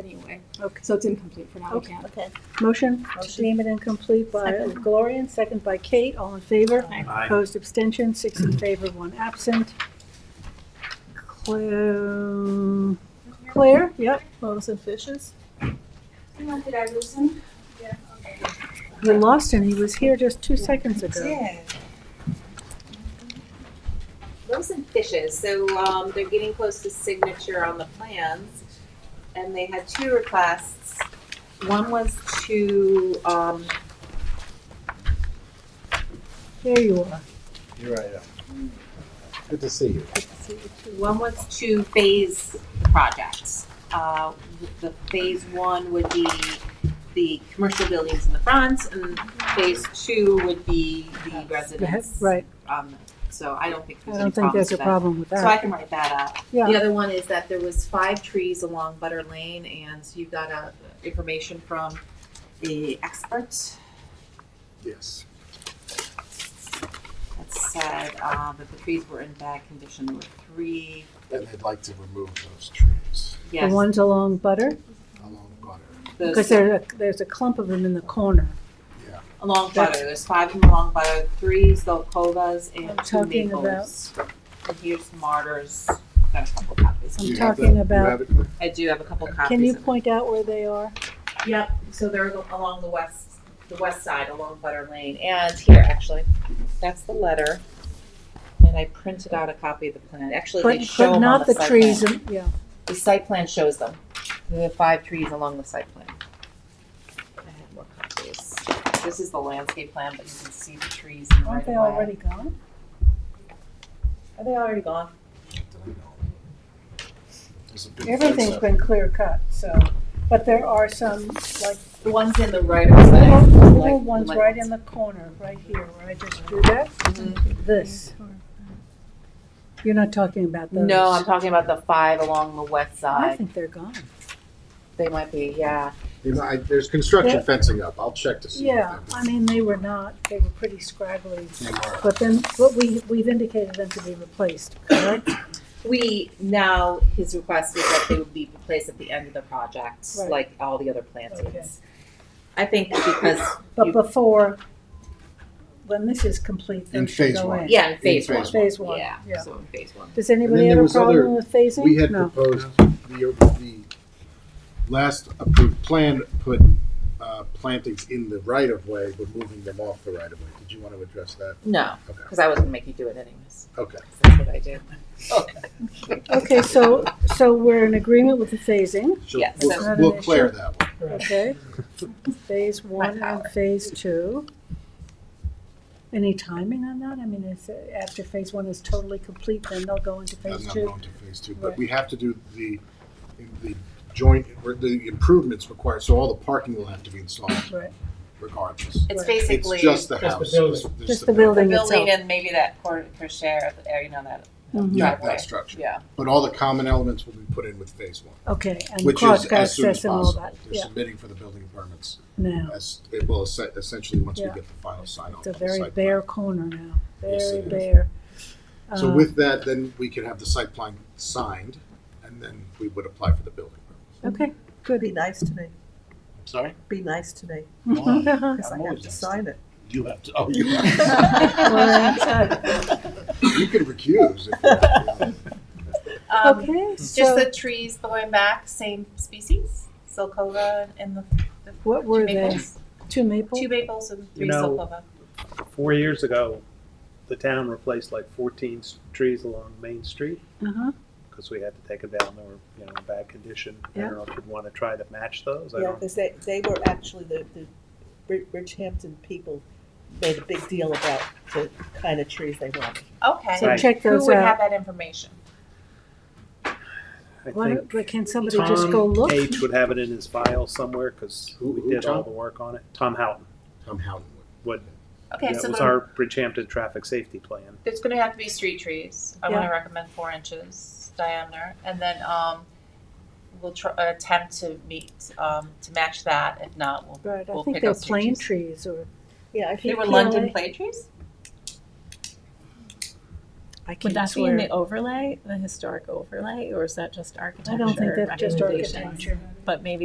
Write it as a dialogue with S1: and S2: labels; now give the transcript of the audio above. S1: anyway.
S2: Okay.
S1: So it's incomplete for now, we
S2: Okay.
S1: can't.
S3: Okay.
S2: Motion to
S3: Motion.
S2: deem it incomplete by
S3: Second.
S2: Gloria and second by Kate. All in favor?
S3: Aye.
S4: Aye.
S2: Opposed, abstention, six in favor, one absent. Claire, Claire, yep,
S3: Loaves and fishes?
S1: Did I lose him? Yeah, okay.
S2: we lost him. He was here just two seconds ago.
S3: Yeah.
S5: Those and fishes, so um, they're getting close to signature on the plans. And they had two requests. One was to, um,
S2: There you are.
S4: You're right. yeah. Good to see you.
S5: one was to phase the projects. Uh, The phase one would be the commercial buildings in the front and phase two would be the residents.
S2: Right,
S5: Um, So I don't think
S2: I
S5: there's any
S2: don't think
S5: problems
S2: there's a
S5: with that.
S2: problem with
S5: So I
S2: that.
S5: can write that up. The
S2: Yeah,
S5: other one is that there was five trees along Butter Lane, and you got uh, information from the expert
S4: Yes.
S5: that said uh, that the trees were in bad condition. There were three,
S4: And they'd like to remove those trees
S2: the
S5: yes,
S2: ones along Butter,
S4: along Butter.
S2: because
S5: those
S2: there, there's a clump of them in the corner.
S5: along
S2: that's-
S5: Butter. There's five of them along Butter, three Zolkovas and
S2: I'm
S5: two
S2: talking about-
S5: maples. And here's martyrs, got a couple copies.
S2: I'm
S4: You have
S2: talking
S4: that- you
S2: about-
S4: have it?
S5: I do have a couple copies.
S2: Can you
S5: of it.
S2: point out where they are?
S5: Yep, so they're al- along the west, the west side along Butter Lane, and here, actually, that's the letter. And I printed out a copy of the plan, actually, they
S2: But,
S5: show
S2: but
S5: them on
S2: not
S5: the
S2: the
S5: site
S2: trees,
S5: plan.
S2: and yeah,
S5: The site plan shows them, the five trees along the site plan. I have more copies. This is the landscape plan, but you can see the trees in the right
S2: aren't
S5: of
S2: they
S5: way.
S2: already gone?
S5: Are they already gone?
S4: There's a big fence
S2: Everything's
S4: up.
S2: been clear cut, so, but there are some, like,
S5: The ones in the right of way.
S2: little, little
S5: like
S2: ones
S5: the
S2: right
S5: ones.
S2: in the corner, right here, where I just drew that,
S5: Mm-hmm.
S2: this. You're not talking about those?
S5: No, I'm talking about the five along the west
S2: I
S5: side,
S2: think they're gone.
S5: they might be, yeah.
S4: You know, I- There's construction
S2: Yeah.
S4: fencing up. I'll check to see. if
S2: Yeah,
S4: that-
S2: I mean, they were not, they were pretty scraggly,
S4: They were.
S2: but then, but we, we've indicated them to be replaced, correct?
S5: We, now, his request was that they would be replaced at the end of the project,
S2: Right.
S5: like all the other
S2: Okay.
S5: plantings. I think because,
S2: But
S5: You-
S2: before, when this is complete,
S4: In
S2: those should
S4: phase
S2: go
S4: one.
S2: in.
S5: yeah, in phase
S4: phase
S5: one,
S2: Phase one,
S5: yeah,
S2: yeah.
S5: so in phase one.
S2: Does anybody
S4: there
S2: have a
S4: was other-
S2: problem with phasing?
S4: We had
S2: No.
S4: proposed, the, the last approved plan put uh, plantings in the right of way, but moving them off the right of way. Did you want to address that?
S5: No,
S4: Okay.
S5: because I was gonna make you do it anyways,
S4: Okay.
S5: 'cause that's what I do.
S2: Okay, so, so we're in agreement with the phasing,
S4: So
S5: Yes.
S4: we'll-
S5: That's
S2: not an
S4: We'll clear
S2: issue.
S4: that one.
S2: okay? Phase one
S5: My
S2: and
S5: power.
S2: phase two. Any timing on that? I mean, is, it- after phase one is totally complete, then they'll go into
S4: And
S2: phase
S4: I'm
S2: two?
S4: going to phase two,
S2: Right.
S4: but we have to do the, the joint, the improvements required, so all the parking will have to be installed
S2: Right,
S4: regardless.
S2: It's
S5: It's
S2: Right.
S5: basically
S4: It's just
S5: the
S4: the
S6: the
S4: house.
S6: building.
S4: it's
S2: Just the building.
S5: building
S2: itself.
S5: and maybe that quarter per share, of the area, you know, that
S2: Mhm.
S4: Yeah,
S5: driveway,
S4: that structure.
S5: yeah.
S4: But all the common elements will be put in with phase one,
S2: okay, and
S4: which is
S2: cross
S4: as soon as
S2: access and all
S4: possible.
S2: that,
S4: They're
S2: yeah,
S4: submitting for the building permits
S2: now,
S4: as, it will es- essentially, once we
S2: Yeah.
S4: get the final sign
S2: it's
S4: off.
S2: a
S4: on the
S2: very
S4: site
S2: bare corner now,
S4: Yes,
S2: very
S4: it is.
S2: bare.
S4: plan. So
S2: Um,
S4: with that, then we can have the site plan signed, and then we would apply for the building permits.
S2: Um, Okay,
S3: Be
S2: good.
S3: nice to me.
S7: Sorry?
S3: Be nice to me,
S2: Well,
S3: because I
S7: I'm
S3: have
S7: always
S3: to
S7: nice.
S3: sign it.
S7: You have to, oh, you have to.
S2: that's-
S4: You can recuse. if you-
S5: Um,
S2: Okay,
S5: Just
S2: so
S5: the trees going back, same species, Silcova and the
S2: what
S5: two
S2: were they?
S5: maples,
S2: Two maple?
S5: two maples and
S6: You
S5: three
S6: know,
S5: Silcova.
S6: Four years ago, the town replaced like 14 s- trees along Main Street
S2: Uh-huh,
S6: because we had to take them down. They were, you know, in bad condition. I
S2: Yeah.
S6: don't know if you'd want to try to match those. I
S3: Yeah,
S6: don't.
S3: because they, they were actually, the, the Bri- Bridgehampton people made a big deal about the kind of trees they wanted.
S5: Okay.
S2: so
S6: Right.
S2: check
S5: Who
S2: those
S5: would have
S2: out.
S5: that information?
S6: I
S2: Why
S6: think
S2: don't- but Can somebody
S6: Tom
S2: just go look?
S6: H would have it in his file somewhere because
S4: Who-
S6: we
S4: who,
S6: did all
S4: Tom?
S6: the work on it. Tom Houghton
S4: Tom Howden would.
S6: would.
S5: Okay,
S6: that
S5: so
S6: was
S5: then
S6: our Bridgehampton traffic safety plan.
S5: there's gonna have to be street trees. I'm gonna recommend four inches diameter, and then um, we'll try attempt to meet um, to match that. If not, we'll.
S2: Right, I
S5: We'll
S2: think
S5: pick
S2: they're
S5: up some
S2: plane
S5: trees.
S2: trees or
S3: Yeah, I
S5: They
S3: think,
S5: were
S2: PLA.
S5: London plane trees.
S2: I
S5: Would
S2: can't
S5: that be in
S2: swear.
S5: the overlay, the historic overlay, or is that just
S2: I
S5: architecture?
S2: don't think that's just
S5: recommendations?
S2: architecture.
S5: But maybe